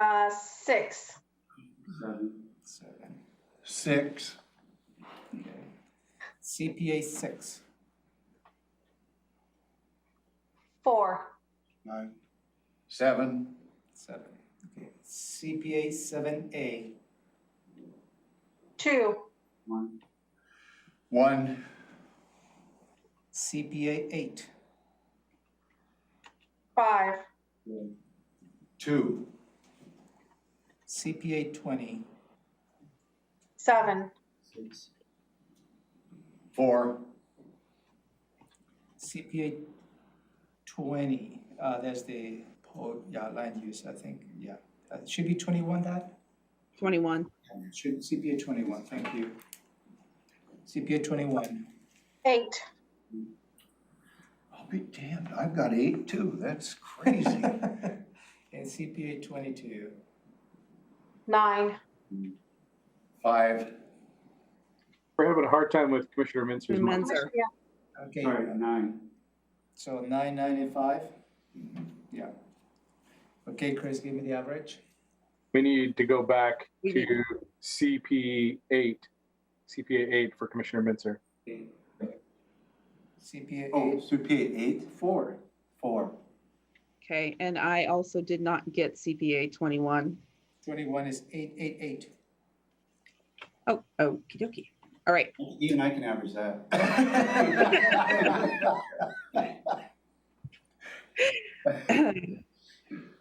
Uh, six. Seven. Six. Okay. CPA six. Four. Nine. Seven. Seven. Okay. CPA seven A. Two. One. CPA eight. Five. Two. CPA twenty. Seven. Four. CPA twenty. Uh, that's the po- yeah land use. I think yeah. Uh, should be twenty one. That 21. should CPA twenty one. Thank you. CPA twenty one. Eight. I'll be damned, I've got eight too, that's crazy. and CPA twenty two. Nine. Five. We're having a hard time with Commissioner Mintzer's mic. Menzer. Yeah. Okay. Sorry, nine. So nine ninety-five? Yeah. Okay, Chris, give me the average. We need to go back We to CP eight, CPA eight for Commissioner Mintzer. CPA Oh, eight, CPA eight, four, four. Okay, and I also did not get CPA 21. twenty-one is eight, eight, eight. Oh, okey dokey. All right, Even I can average that.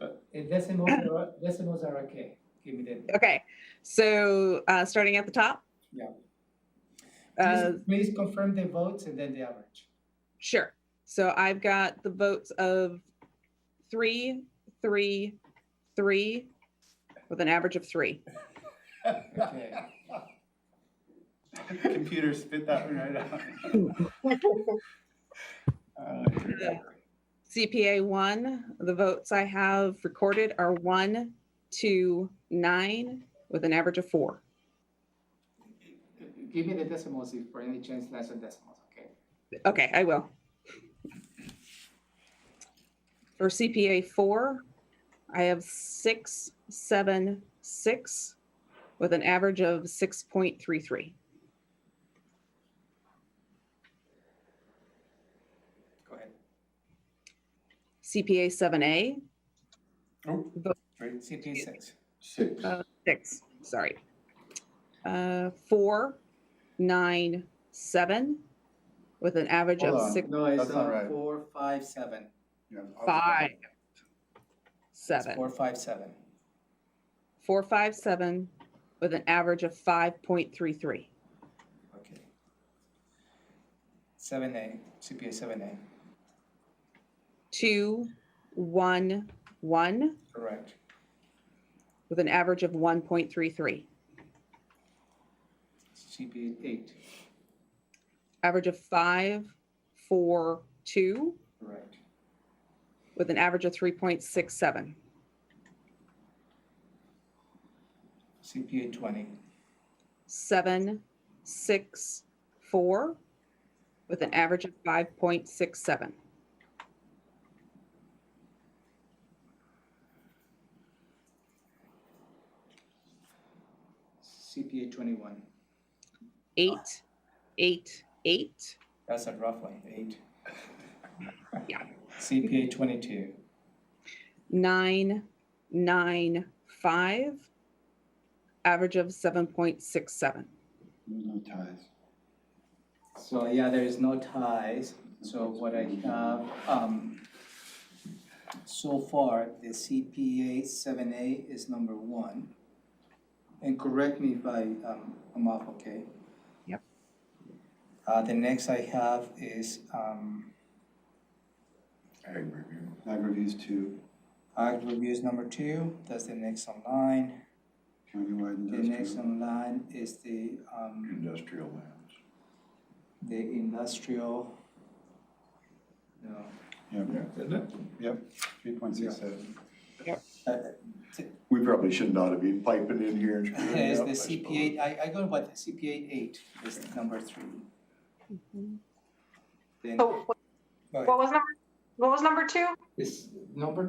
Uh, Decimals are, decimals are okay. Give me the, okay. So uh, starting at the top? Yeah. Uh, please, please confirm the votes and then the average. Sure. So I've got the votes of three, three, three, with an average of three. Okay. Computer spit that one right out. CPA one, the votes I have recorded are one, two, nine, with an average of four. Give me the decimals if for any chance less than decimals, okay? Okay, I will. For CPA four, I have six, seven, six, with an average of six point three three. Go ahead. CPA seven A, Great, CPA six. Six. uh, six, sorry. Uh, four, nine, seven, with an average Hold of on. six, No, it's That's not uh, right. four, five, seven. Yeah, I'll- five, It's seven, Four, five, seven. four, five, seven, with an average of five point three three. Okay. Seven A, CPA seven A, two, one, one, correct. with an average of one point three three. CPA eight, Average of five, four, two, correct. with an average of three point six seven. CPA twenty, Seven, six, four, with an average of five point six seven. CPA twenty-one, Eight, eight, eight, that's a rough one, eight. Yeah. CPA twenty-two, nine, nine, five, average of seven point six seven. No ties. so yeah, there is no ties, so what I have, um, so far, the CPA seven A is number one. And correct me if I, um, I'm off, okay? Yep. Uh, the next I have is, um, Ag review. Ag reviews two, Ag reviews number two, that's the next online. countywide The next industrial. online is the, um, Industrial lands. the industrial. No, Yep, Isn't it? yep, three point six seven. uh, uh, We probably shouldn't ought to be piping in here and screwing it it's up, I the CPA, I, I go by the CPA eight, is number three. Then, So what go ahead. what was number, what was number two? It's number